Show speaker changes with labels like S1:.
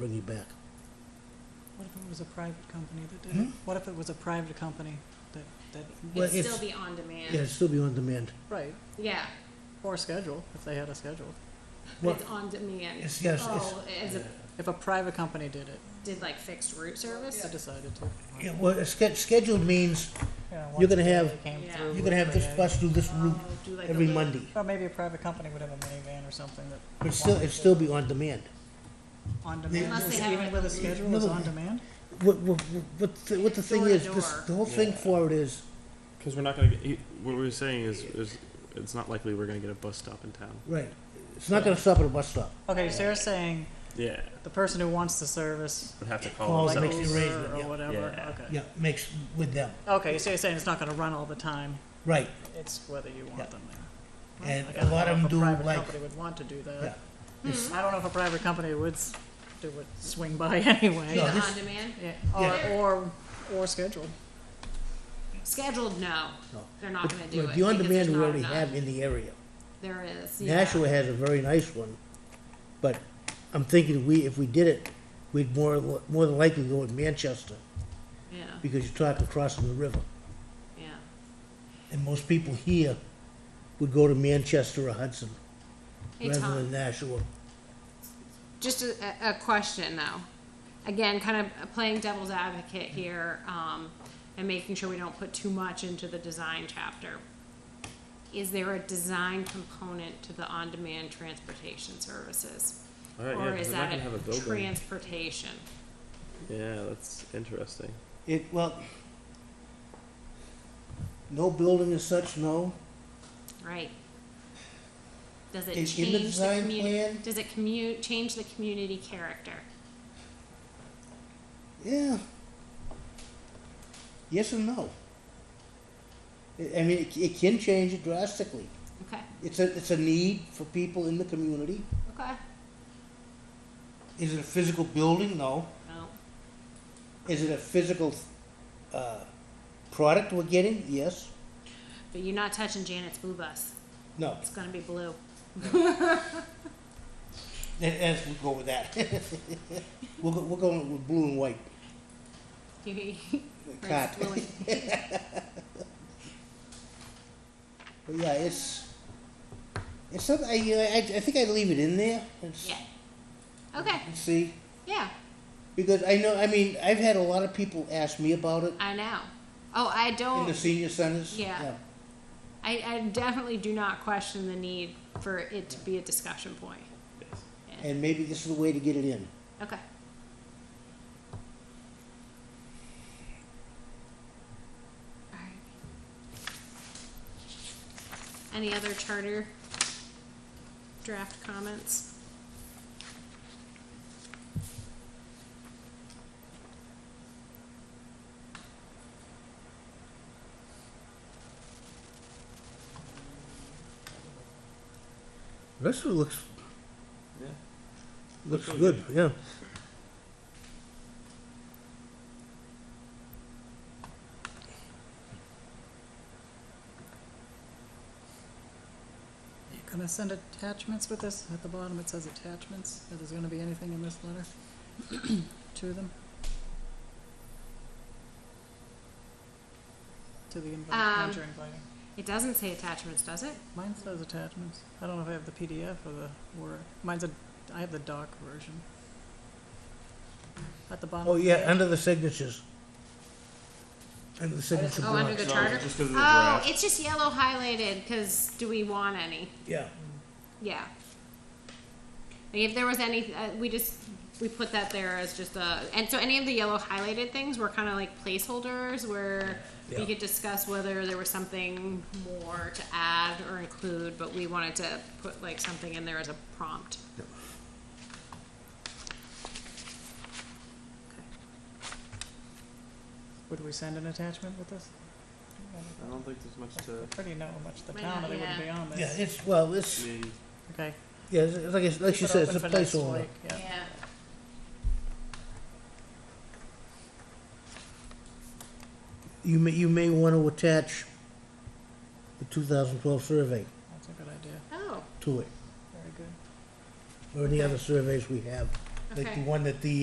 S1: bring you back.
S2: What if it was a private company that did it?
S1: Hmm?
S2: What if it was a private company that, that,
S1: Well,
S3: It'd
S1: it's-
S3: still be on
S1: Yeah, it'd
S3: demand.
S1: still be on demand.
S2: right,
S3: Yeah,
S2: or schedule, if they had a schedule?
S1: Well,
S3: it's on demand.
S1: It's, yes, it's,
S3: Oh, as a,
S2: If a private company did it,
S3: did like fixed route service?
S2: I decided to.
S1: yeah, well, a sch- scheduled means
S2: once
S1: You're gonna
S2: a day
S1: have-
S2: they came
S3: Yeah.
S2: through
S1: you're gonna have
S2: with
S1: this
S2: a-
S1: bus do this route
S3: Oh, do like a
S1: every
S3: little-
S1: Monday.
S2: Or maybe a private company would have a minivan or something that.
S1: But still, it'd still be on demand.
S2: On
S3: Unless
S2: demand,
S3: they
S2: is-
S3: have
S2: even
S3: it-
S2: with a schedule, it's
S1: No.
S2: on demand?
S1: What, what, what, the- what the thing
S3: Door to
S1: is, this,
S3: door.
S1: the whole thing
S4: Yeah.
S1: for it is,
S4: Because we're not going to get. he- What we were saying is, is it's not likely we're going to get a bus stop in town.
S1: right, it's not gonna stop at a bus stop.
S2: Okay, so you're saying
S4: Yeah.
S2: the person who wants the service,
S4: Would have to
S1: Call Well,
S4: call
S1: Oh, that
S2: like
S1: makes
S4: themselves.
S1: the
S2: Uber
S1: arrangement,
S2: or
S1: yeah.
S2: whatever,
S4: Yeah.
S2: okay.
S1: Yeah, makes with them,
S2: Okay, so you're saying it's not gonna run all the time,
S1: right,
S2: it's whether you
S1: Yeah.
S2: want them there. Well,
S1: and
S2: I
S1: a
S2: don't
S1: lot
S2: know
S1: of
S2: if
S1: them do
S2: private
S1: like,
S2: Company would want to do that.
S1: yeah. It's-
S2: I don't know if a private company would, s- do would swing by anyway.
S3: Do
S1: No,
S3: the
S1: this-
S3: on demand?
S2: Yeah,
S1: Yeah.
S2: or, or, or scheduled.
S3: Scheduled, no,
S1: No.
S3: they're not gonna do
S1: Right,
S3: it.
S1: The on
S3: because there's
S1: demand we
S3: not
S1: already
S3: enough.
S1: have in the area.
S3: There is, yeah.
S1: Nashua has a very nice one, but I'm thinking we, if we did it, we'd more, more than likely go with Manchester,
S3: Yeah,
S1: because you're talking crossing the river.
S3: yeah.
S1: And most people here would go to Manchester or Hudson,
S3: Hey,
S1: rather
S3: Tom.
S1: than Nashua.
S3: Just a, a a question though. Again, kind of playing devil's advocate here, um, and making sure we don't put too much into the design chapter. Is there a design component to the on-demand transportation services?
S4: All right, yeah,
S3: Or
S4: 'cause
S3: is
S4: they're not
S3: that
S4: gonna have a
S3: a
S4: building.
S3: transportation?
S4: Yeah, that's interesting.
S1: It, well, no building as such, no.
S3: Right. Does it
S1: In- in the
S3: change
S1: design
S3: community?
S1: plan?
S3: Does it commu- change the community character?
S1: Yeah. Yes and no. I I mean, it, it can change it drastically.
S3: Okay,
S1: It's a, it's a need for people in the community.
S3: okay,
S1: Is it a physical building? No.
S3: no,
S1: Is it a physical uh, product we're getting? Yes.
S3: but you're not touching Janet's blue bus,
S1: No.
S3: it's gonna be blue.
S1: Th- That's, we'll go with that. we'll go, we're going with blue and white.
S3: Or
S1: Cat.
S3: it's blue.
S1: But yeah, it's it's something. I, you know, I, I think I'd leave it in there. It's,
S3: Yeah, okay,
S1: and See,
S3: yeah,
S1: because I know. I mean, I've had a lot of people ask me about it
S3: I know. Oh, I
S1: in the
S3: don't,
S1: senior centers.
S3: Yeah. I, I definitely do not question the need for it to be a discussion point.
S4: Yes.
S3: Yeah.
S1: And maybe this is the way to get it in.
S3: Okay. Alright. Any other charter draft comments?
S1: The rest of it looks
S4: Yeah.
S1: looks
S4: really
S1: good. Yeah.
S2: You're gonna send attachments with this? At the bottom, it says attachments. If there's gonna be anything in this letter to them? To the invite,
S3: Um,
S2: what you're inviting.
S3: It doesn't say attachments, does it?
S2: Mine says attachments. I don't know if I have the PDF or the Word. Mine's a, I have the doc version. At the bottom.
S1: Oh
S2: of the
S1: yeah,
S2: page.
S1: under the signatures. Under the signature
S3: Oh, under
S1: block.
S3: the
S4: No,
S3: charter?
S4: just 'cause of
S3: Oh,
S4: the draft.
S3: it's just yellow highlighted, cause do we want any?
S1: Yeah.
S3: Yeah. Like if there was any, uh, we just, we put that there as just a, and so any of the yellow highlighted things were kind of like placeholders where
S1: Yeah.
S3: we could discuss whether there was something more to add or include, but we wanted to put like something in there as a prompt.
S1: Yep.
S3: Okay.
S2: Would we send an attachment with this?
S4: I don't think there's much to.
S2: Pretty know how much the
S3: Might
S2: town,
S3: not,
S2: or they wouldn't
S3: yeah.
S2: be on this.
S1: Yeah, it's well,
S4: I
S1: it's
S4: mean,
S2: Okay.
S1: yeah, it's, it's like it's, like she
S2: Keep it
S1: said, it's
S2: open
S1: a
S2: for next
S1: placeholder.
S2: week, Yeah.
S3: Yeah.
S1: You may you may want to attach the 2012 survey
S2: That's a good idea,
S3: Oh,
S1: to it,
S2: very good.
S1: or any other surveys we have. like the
S3: Okay.
S1: one that the